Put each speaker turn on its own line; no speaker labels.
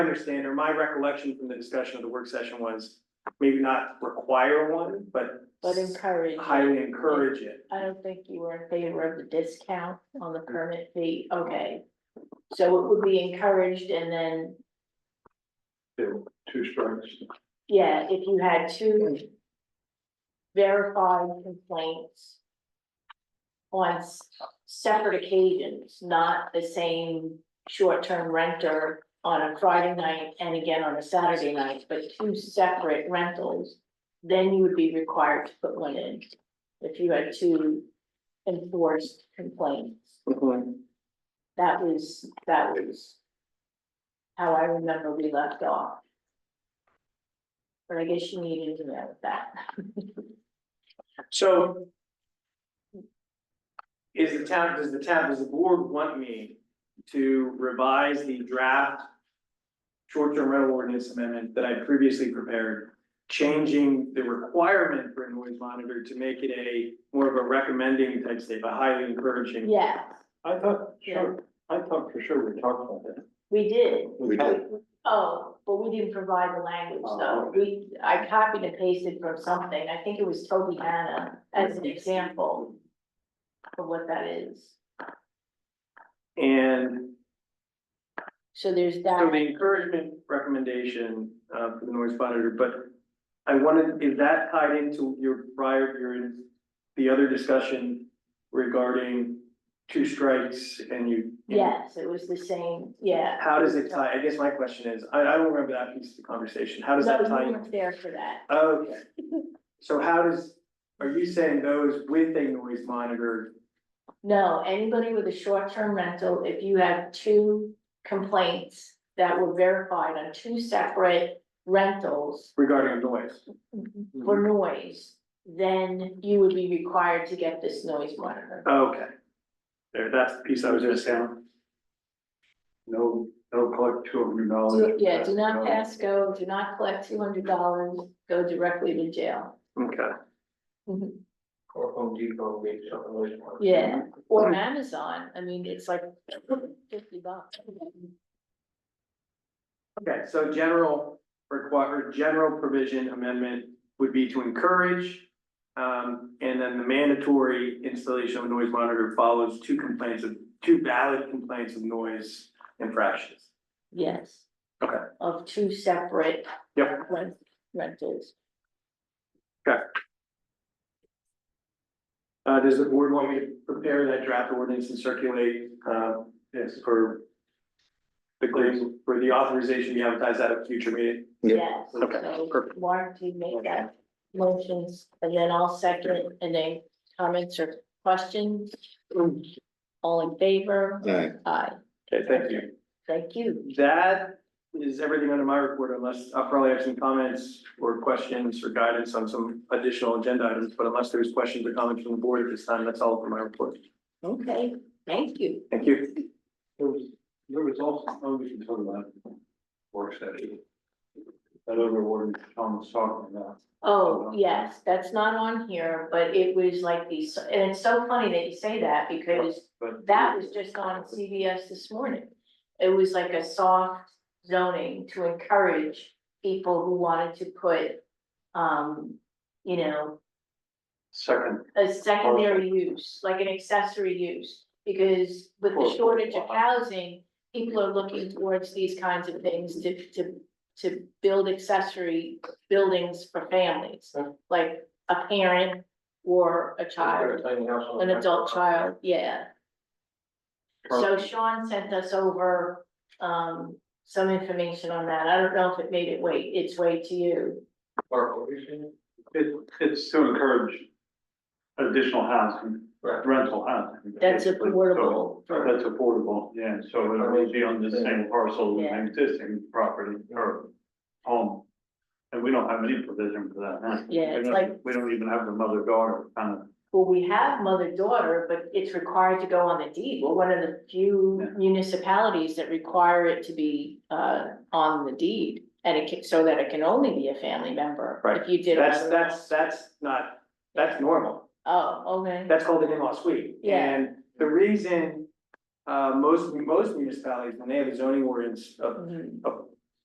understand, or my recollection from the discussion of the work session was maybe not require one, but
but encourage.
highly encourage it.
I don't think you were in favor of the discount on the permit fee, okay. So it would be encouraged and then,
Two, two strikes.
yeah, if you had two verified complaints on s- separate occasions, not the same short-term renter on a Friday night and again on a Saturday night, but two separate rentals, then you would be required to put one in if you had two enforced complaints. That was, that was. How I remember we left off. But I guess you needed to know that.
So. Is the town, does the town, does the board want me to revise the draft? Short-term rental ordinance amendment that I previously prepared, changing the requirement for a noise monitor to make it a more of a recommending type state, but highly encouraging.
Yeah,
I thought,
Yeah.
sure, I thought for sure we talked about that.
we did.
We
Oh, but we didn't provide the language
Oh,
though. We, I copied and pasted from something. I think it was Toby Hannah as an example. Of what that is.
And
So there's
So the
that.
encouragement recommendation uh for the noise monitor, but I wanted, is that tied into your prior, your, the other discussion regarding two strikes and you?
Yes, it was the same, yeah.
How does it tie, I guess my question is, I I don't remember that piece of the conversation, how does that
No,
tie?
you
in?
weren't there for that.
Okay, so how does, are you saying those with a noise monitor?
No, anybody with a short-term rental, if you have two complaints that were verified on two separate rentals
Regarding noise, Mm-hmm.
for noise, then you would be required to get this noise monitor.
okay. There, that's the piece I was just saying.
No, no collect two hundred
Oh,
dollars.
Do- Yeah, do not pass go, do not collect two hundred dollars, go directly to jail.
okay.
Mhm.
Or Home Depot, maybe something like that.
Yeah,
Hmm.
or Amazon, I mean, it's like fifty bucks.
Okay, so general require, general provision amendment would be to encourage. Um, and then the mandatory installation of a noise monitor follows two complaints of, two valid complaints of noise infractions.
Yes.
Okay.
Of two separate
Yep.
rent- rentals.
Uh, does the board want me to prepare that draft ordinance and circulate, uh, yes, for the claim, for the authorization to be advertised at a future meeting?
Yep.
Yes,
Okay,
so
perfect.
Mark, you make that motions and then I'll second and then comments or questions? All in favor?
Aye.
Aye,
Okay, thank you.
thank you.
That is everything under my report unless, I'll probably have some comments or questions or guidance on some additional agenda items, but unless there's questions or comments from the board at this time, that's all for my report.
Okay, thank you.
Thank you.
There was, there was also, oh, we can talk about it. work study. That other one Tom was talking about.
Oh, yes, that's not on here, but it was like these, and it's so funny that you say that because
But
that was just on CBS this morning. It was like a soft zoning to encourage people who wanted to put, um, you know,
Second,
a secondary use, like an accessory use. Because with the shortage of housing, people are looking towards these kinds of things to, to, to build accessory buildings for families. Like a parent or a child, an adult child, yeah. So Sean sent us over, um, some information on that. I don't know if it made it way, its way to you.
It, it's to encourage additional housing, rental housing.
That's
basically.
affordable
So
for,
That's affordable, yeah, so it would be on the same parcel as
Yeah.
an existing property or home. And we don't have any provision for that, huh?
Yeah, it's
We don't-
like-
We don't even have the mother daughter kind of,
well, we have mother-daughter, but it's required to go on the deed. We're one of the few municipalities that require it to be, uh, on the deed. And it can, so that it can only be a family member
Right.
if you did. a
That's,
mother-
that's, that's not, that's normal.
Oh, okay,
That's called an in-law suite.
Yeah.
And the reason, uh, most, most municipalities, when they have a zoning ordinance of
Mhm.
of